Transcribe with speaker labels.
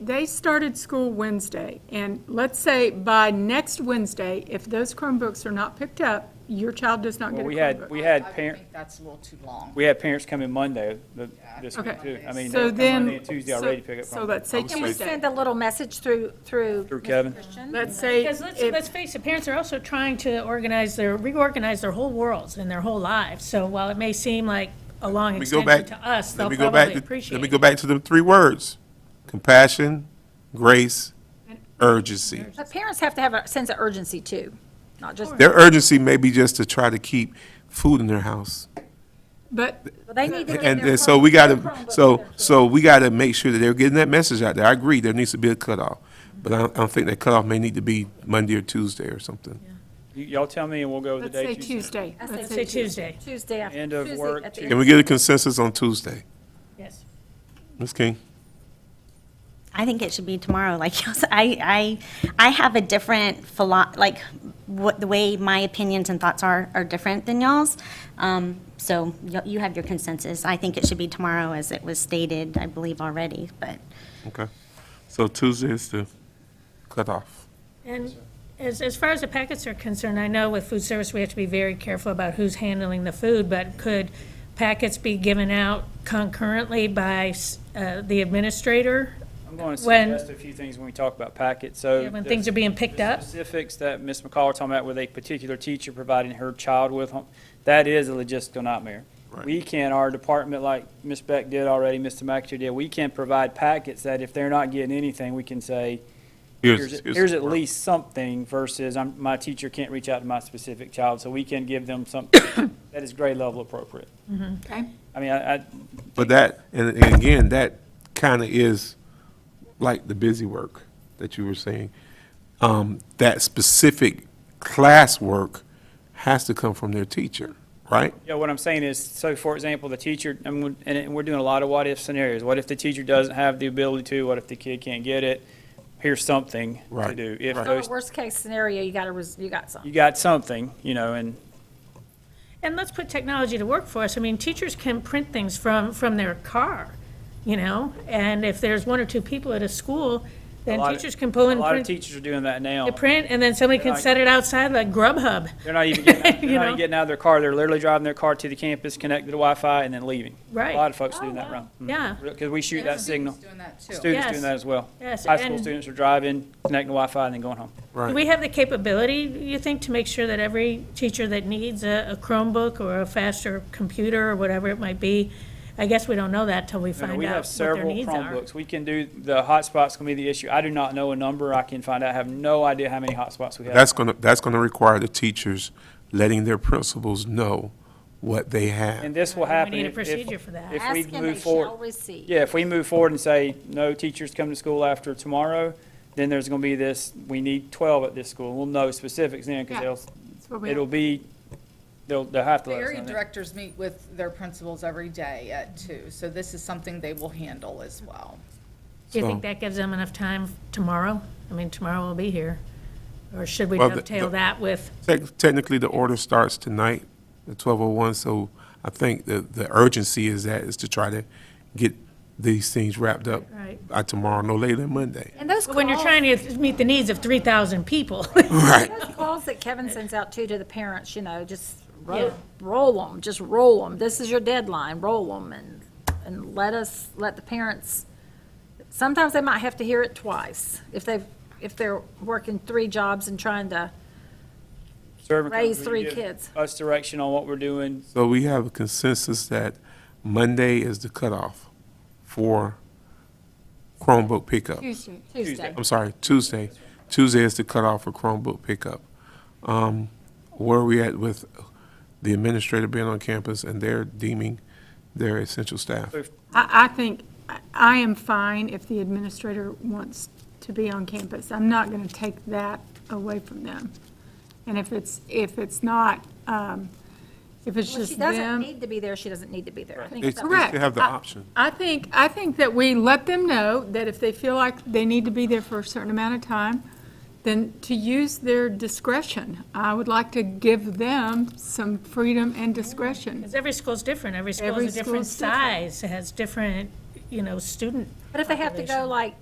Speaker 1: They started school Wednesday, and let's say by next Wednesday, if those Chromebooks are not picked up, your child does not get
Speaker 2: Well,
Speaker 1: a
Speaker 2: we had,
Speaker 1: Chromebook.
Speaker 2: we
Speaker 3: I
Speaker 2: had
Speaker 3: would
Speaker 2: parent,
Speaker 3: think that's a little too long.
Speaker 2: we had parents come in Monday, the- this week
Speaker 1: Okay.
Speaker 2: too. I mean, they
Speaker 1: So
Speaker 2: come Monday
Speaker 1: then,
Speaker 2: and Tuesday
Speaker 1: so-
Speaker 2: already to pick up
Speaker 1: So
Speaker 2: from,
Speaker 1: let's say
Speaker 4: Can we send
Speaker 1: Tuesday.
Speaker 4: a little message through, through?
Speaker 2: through Kevin.
Speaker 1: Let's say,
Speaker 5: Because let's,
Speaker 1: if-
Speaker 5: let's face it, parents are also trying to organize their, reorganize their whole worlds and their whole lives. So while it may seem like a long
Speaker 4: Let
Speaker 6: me go
Speaker 5: extension
Speaker 6: back.
Speaker 5: to us,
Speaker 6: Let
Speaker 5: they'll
Speaker 6: me go back.
Speaker 5: probably
Speaker 6: to- Let
Speaker 5: appreciate
Speaker 6: me
Speaker 5: it.
Speaker 6: go back to the three words: compassion, grace, urgency.
Speaker 4: But parents have to have a sense of urgency too, not just,
Speaker 6: Their urgency may be just to try to keep food in their house,
Speaker 1: but,
Speaker 4: Well, they need to. get
Speaker 6: and
Speaker 4: their
Speaker 6: and so we got
Speaker 4: Chromebook-
Speaker 6: to.
Speaker 4: their Chromebook
Speaker 6: So
Speaker 4: with their
Speaker 6: so we got to make sure that they're getting that message out there. I agree. There needs to be a cutoff, but I don't, I don't think that cutoff may need to be Monday or Tuesday or something.
Speaker 2: Y- Y'all tell me and we'll go with the
Speaker 1: let's
Speaker 2: day.
Speaker 1: say Tuesday.
Speaker 4: I
Speaker 1: Let's
Speaker 4: say
Speaker 1: say
Speaker 5: Say Tuesday,
Speaker 4: Tuesday after.
Speaker 2: End of
Speaker 4: Tuesday
Speaker 2: work,
Speaker 4: at the
Speaker 2: Tuesday.
Speaker 6: Can we get a consensus on Tuesday,
Speaker 5: yes.
Speaker 6: Ms. King?
Speaker 7: I think it should be tomorrow. Like y'all said, I, I, I have a different philo, like what the way my opinions and thoughts are are different than y'all's. Um, so y- you have your consensus. I think it should be tomorrow, as it was stated, I believe already. But
Speaker 6: Okay, so Tuesday is the cutoff.
Speaker 5: And as, as far as the packets are concerned, I know with food service, we have to be very careful about who's handling the food, but could packets be given out concurrently by s- uh, the administrator
Speaker 2: I'm going to
Speaker 5: When-
Speaker 2: suggest a few things when we talk about packets, so.
Speaker 5: when
Speaker 2: the-
Speaker 5: things are being picked
Speaker 2: the
Speaker 5: up?
Speaker 2: Specifics that Ms. McCall was talking about with a particular teacher providing her child with, home- that is a logistical nightmare. We can, our department, like Ms. Beck did already, Mr. McAteer did, we can provide packets that if they're not getting anything, we can say, here's, here's at least something versus I'm, my teacher can't reach out to my specific child, so we can give them something that is grade level appropriate.
Speaker 5: Mm-hmm.
Speaker 1: Okay.
Speaker 2: I mean, I, I,
Speaker 6: But that, and and again, that kind of is like the busy work that you were saying. Um, That specific classwork has to come from their teacher, right?
Speaker 2: Yeah, what I'm saying is, so for example, the teacher, and we- and it- we're doing a lot of what-if scenarios. What if the teacher doesn't have the ability to? What if the kid can't get it? Here's something to
Speaker 6: Right,
Speaker 2: do. If
Speaker 6: right.
Speaker 2: those,
Speaker 4: Worst case scenario, you got to, you got some.
Speaker 2: you got something, you know, and
Speaker 5: And let's put technology to work for us. I mean, teachers can print things from, from their car, you know? And if there's one or two people at a school, then
Speaker 2: lot of-
Speaker 5: teachers can pull
Speaker 2: a
Speaker 5: in,
Speaker 2: lot of
Speaker 5: print,
Speaker 2: teachers are doing that now.
Speaker 5: the print, and then somebody can
Speaker 2: Like-
Speaker 5: set it outside like Grubhub.
Speaker 2: They're not even getting, they're
Speaker 5: You
Speaker 2: not
Speaker 5: know?
Speaker 2: even getting out of their car. They're literally driving their car to the campus, connected to Wi-Fi, and then leaving.
Speaker 5: Right. Oh,
Speaker 2: A lot of folks doing that around. Mm-hmm.
Speaker 5: Yeah,
Speaker 2: Because we shoot that
Speaker 3: Students
Speaker 2: signal.
Speaker 3: Doing that too.
Speaker 2: Students
Speaker 5: Yes.
Speaker 2: doing that as well.
Speaker 5: yes.
Speaker 2: High school
Speaker 5: And
Speaker 2: students are driving, connecting to Wi-Fi, and then going home.
Speaker 5: Do we have the capability, you think, to make sure that every teacher that needs a a Chromebook or a faster computer or whatever it might be? I guess we don't know that till we
Speaker 2: No, no,
Speaker 5: find
Speaker 2: We
Speaker 5: out
Speaker 2: have
Speaker 5: what their
Speaker 2: several
Speaker 5: needs are.
Speaker 2: Chromebooks. We can do, the hotspot's gonna be the issue. I do not know a number. I can find out. I have no idea how many hotspots we have.
Speaker 6: That's going to, that's going to require the teachers letting their principals know what they
Speaker 2: And
Speaker 6: have.
Speaker 2: this will happen.
Speaker 5: We need a
Speaker 2: if- if-
Speaker 5: procedure for that.
Speaker 2: If we
Speaker 4: Ask and they
Speaker 2: move
Speaker 4: shall
Speaker 2: forward,
Speaker 4: receive.
Speaker 2: yeah, if we move forward and say, no teachers come to school after tomorrow, then there's gonna be this, we need twelve at this school. We'll know specifics then,
Speaker 1: Yeah.
Speaker 2: because
Speaker 1: that's what
Speaker 2: they'll,
Speaker 1: we-
Speaker 2: it'll be, they'll, they'll have to
Speaker 3: The
Speaker 2: let us
Speaker 3: area
Speaker 2: know that.
Speaker 3: directors meet with their principals every day at two, so this is something they will handle as well.
Speaker 5: Do you
Speaker 6: So-
Speaker 5: think that gives them enough time tomorrow? I mean, tomorrow we'll be here. Or should we
Speaker 6: Well, the-
Speaker 5: dovetail
Speaker 6: the-
Speaker 5: that with,
Speaker 6: Tec- Technically, the order starts tonight, the 12:01, so I think the, the urgency is that, is to try to get these things wrapped up
Speaker 5: Right.
Speaker 6: by tomorrow, no later than Monday.
Speaker 4: And those
Speaker 5: when you're
Speaker 4: calls-
Speaker 5: trying to meet the needs of 3,000 people?
Speaker 6: Right.
Speaker 4: Those calls that Kevin sends out too to the parents, you know, just roll, roll 'em, them, just roll them. This is your deadline, roll them and, and let us, let the parents, sometimes they might have to hear it twice if they've, if they're working three jobs and trying to,
Speaker 2: Servant
Speaker 4: raise
Speaker 2: company
Speaker 4: three
Speaker 2: give
Speaker 4: kids.
Speaker 2: Us direction on what we're doing.
Speaker 6: So we have a consensus that Monday is the cutoff for Chromebook pickup.
Speaker 1: Tuesday.
Speaker 4: Tuesday.
Speaker 6: I'm sorry, Tuesday. Tuesday is the cutoff for Chromebook pickup. Um, Where are we at with the administrator being on campus and they're deeming their essential staff?
Speaker 1: I, I think, I- I am fine if the administrator wants to be on campus. I'm not going to take that away from them. And if it's, if it's not, um, if it's
Speaker 4: Well, she
Speaker 1: just
Speaker 4: doesn't
Speaker 1: them.
Speaker 4: need to be there, she doesn't need to be there. I think
Speaker 6: They
Speaker 4: it's up to
Speaker 6: still have the
Speaker 1: Correct. I-
Speaker 6: option.
Speaker 1: I think, I think that we let them know that if they feel like they need to be there for a certain amount of time, then to use their discretion. I would like to give them some freedom and discretion.
Speaker 5: Because every school's different, every school
Speaker 1: Every
Speaker 5: has a different
Speaker 1: school's different.
Speaker 5: size, has different, you know, student
Speaker 4: But if they have to go like